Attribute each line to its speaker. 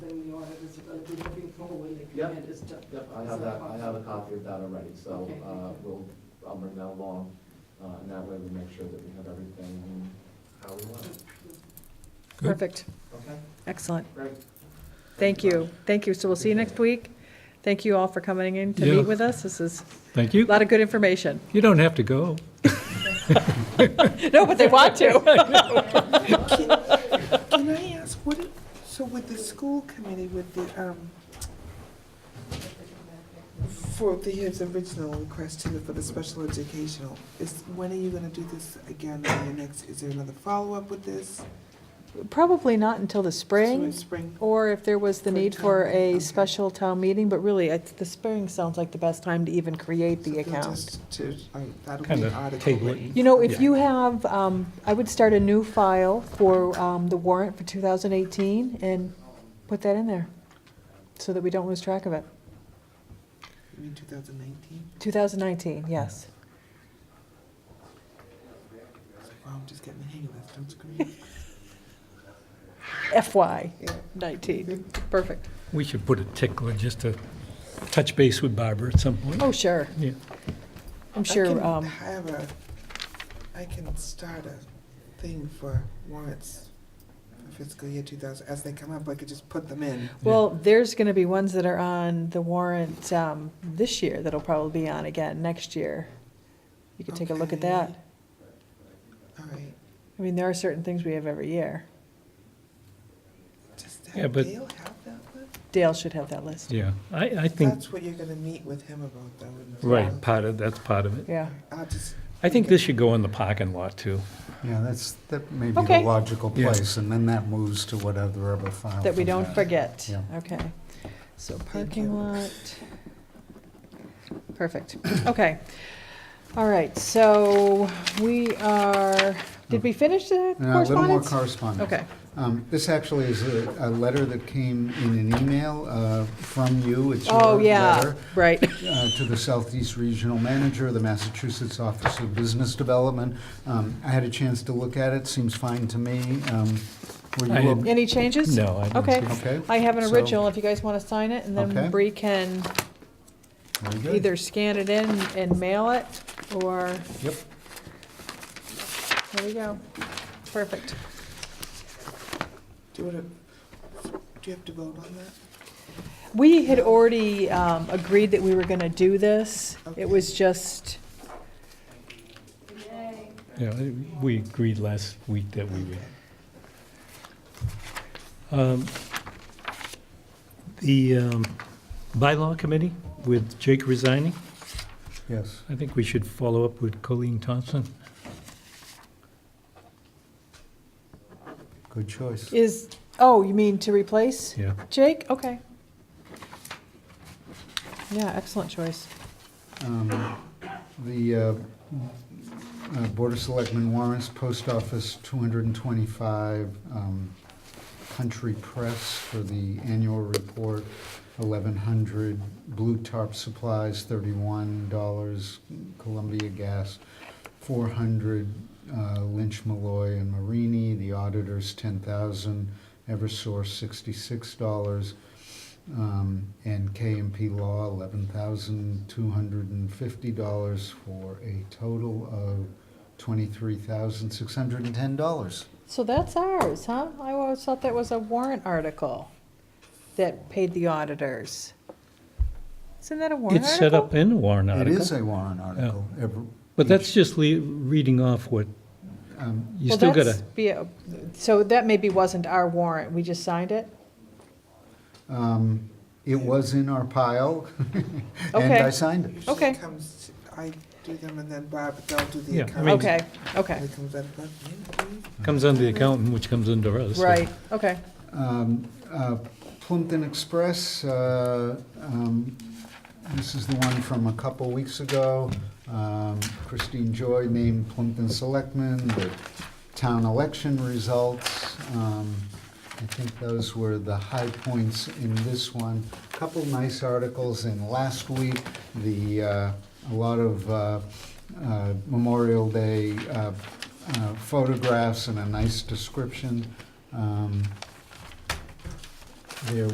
Speaker 1: uh, the moving forward when the
Speaker 2: Yep.
Speaker 1: command is done.
Speaker 2: Yep, I
Speaker 1: Is
Speaker 2: have
Speaker 1: that
Speaker 2: that, I have a
Speaker 1: possible?
Speaker 2: copy of that already, so,
Speaker 1: Okay.
Speaker 2: uh, we'll, I'll bring that along, uh, and that way we make sure that we have everything how we want it.
Speaker 3: Perfect,
Speaker 2: Okay,
Speaker 3: excellent.
Speaker 2: great.
Speaker 3: Thank you, thank you. So we'll see you next week. Thank you all for coming in to
Speaker 4: Yeah.
Speaker 3: meet with us. This is
Speaker 4: Thank
Speaker 3: a
Speaker 4: you.
Speaker 3: lot of good information.
Speaker 4: You don't have to go.
Speaker 3: No, but they want to.
Speaker 5: Can I ask, what, it- so with the school committee, with the, um, for the, his original request to the, for the special educational, is, when are you gonna do this again, on your next, is there another follow-up with this?
Speaker 3: Probably not until the spring,
Speaker 5: Spring?
Speaker 3: or if there was the
Speaker 5: For
Speaker 3: need
Speaker 5: town,
Speaker 3: for a
Speaker 5: okay.
Speaker 3: special town meeting, but really, it's- the spring sounds like the best time to even create the
Speaker 5: So they'll
Speaker 3: account.
Speaker 5: just- To, like, that'll be
Speaker 4: Kind
Speaker 5: an
Speaker 4: of
Speaker 5: article
Speaker 4: table
Speaker 5: written.
Speaker 4: it.
Speaker 3: You know, if
Speaker 4: Yeah.
Speaker 3: you have, um, I would start a new file for um, the warrant for 2018 and put that in there, so that we don't lose track of it.
Speaker 5: You mean two thousand nineteen?
Speaker 3: 2019, yes.
Speaker 5: Wow, I'm just getting the hang of this, don't scream.
Speaker 3: FY
Speaker 5: Yeah.
Speaker 3: 19, perfect.
Speaker 4: We should put a tickler just to touch base with Barbara at some point.
Speaker 3: Oh, sure,
Speaker 4: Yeah.
Speaker 3: I'm
Speaker 5: I
Speaker 3: sure,
Speaker 5: can
Speaker 3: um,
Speaker 5: have a, I can start a thing for warrants for fiscal year two thousand, as they come up, I could just put them in.
Speaker 3: well, there's going to be ones that are on the warrant um, this year that'll probably be on again next year. You could take a look at that.
Speaker 5: Okay. All right,
Speaker 3: I mean, there are certain things we have every year.
Speaker 5: does
Speaker 4: Yeah,
Speaker 5: that
Speaker 4: but-
Speaker 5: Dale have that one?
Speaker 3: Dale should have that list,
Speaker 4: Yeah, I, I think,
Speaker 5: That's what you're gonna meet with him about, though. isn't it?
Speaker 4: right, part of, that's part of it.
Speaker 3: yeah.
Speaker 5: I'll just.
Speaker 4: I think this should go in the parking lot too.
Speaker 6: Yeah, that's, that may be the
Speaker 3: Okay.
Speaker 6: logical
Speaker 4: Yeah.
Speaker 6: place, and then that moves to whatever other file.
Speaker 3: That we
Speaker 6: from
Speaker 3: don't
Speaker 6: that.
Speaker 3: forget.
Speaker 6: Yeah.
Speaker 3: Okay. So
Speaker 5: you.
Speaker 3: parking lot. Perfect. Okay. All right, so we are, did we finish the
Speaker 6: Uh, A little more
Speaker 3: correspondence?
Speaker 6: correspondence.
Speaker 3: Okay.
Speaker 6: Um, This actually is a, a letter that came in an email uh, from you. It's
Speaker 3: Oh,
Speaker 6: your
Speaker 3: yeah,
Speaker 6: letter.
Speaker 3: right.
Speaker 6: uh, to the Southeast Regional Manager, the Massachusetts Office of Business Development. Um, I had a chance to look at it, seems fine to me. Um, Were
Speaker 4: I
Speaker 6: you,
Speaker 4: didn't-
Speaker 6: o-
Speaker 3: Any changes?
Speaker 4: No, I don't
Speaker 3: Okay.
Speaker 4: see-
Speaker 6: okay?
Speaker 3: I have an
Speaker 6: So-
Speaker 3: original, if you guys want to sign it, and
Speaker 6: Okay.
Speaker 3: then Bree can
Speaker 6: Very good.
Speaker 3: either scan it in and mail it, or,
Speaker 6: Yep.
Speaker 3: there we go. Perfect.
Speaker 5: Do you wanna, do you have to vote on that?
Speaker 3: We had already um, agreed that we were going to do this. It was just,
Speaker 4: Yeah, we agreed last week that we would. Um, The um, bylaw committee with Jake resigning,
Speaker 6: Yes.
Speaker 4: I think we should follow up with Colleen Thompson.
Speaker 6: Good choice.
Speaker 3: is, oh, you mean to replace
Speaker 4: Yeah.
Speaker 3: Jake? Okay. Yeah, excellent choice.
Speaker 6: Um, The uh, uh, Board of Selectmen warrants, Post Office, 225, um, Country Press for the annual report, 1,100, Blue Tarp Supplies, $31, Columbia Gas, 400, uh, Lynch, Malloy, and Marini, the auditors, 10,000, Eversource, $66, um, and KMP Law, eleven thousand two hundred and fifty dollars for a total of twenty-three thousand six hundred and ten dollars.
Speaker 3: So that's ours, huh? I always thought that was a warrant article that paid the auditors. Isn't that a warrant
Speaker 4: It's set up
Speaker 3: article?
Speaker 4: in a warrant
Speaker 6: It
Speaker 4: article.
Speaker 6: is a warrant article. Every-
Speaker 4: But that's just le- reading off what,
Speaker 6: um,
Speaker 4: you
Speaker 3: Well,
Speaker 4: still
Speaker 3: that's
Speaker 4: gotta,
Speaker 3: be a- So that maybe wasn't our warrant, we just signed it?
Speaker 6: um, It was in our pile, and
Speaker 3: Okay.
Speaker 6: I signed it.
Speaker 5: Usually
Speaker 3: Okay.
Speaker 5: it comes, I do them and then Bob, they'll do the
Speaker 4: Yeah, I
Speaker 5: account.
Speaker 4: mean-
Speaker 3: Okay, okay,
Speaker 5: It comes out of, yeah,
Speaker 4: comes under the accountant, which comes under us. so-
Speaker 3: right, okay.
Speaker 6: Um, uh, Plimpton Express, uh, um, this is the one from a couple weeks ago. Um, Christine Joy named Plimpton Selectmen, the town election results. Um, I think those were the high points in this one. Couple nice articles in last week, the, uh, a lot of uh, uh, Memorial Day uh, uh, photographs and a nice description. Um, there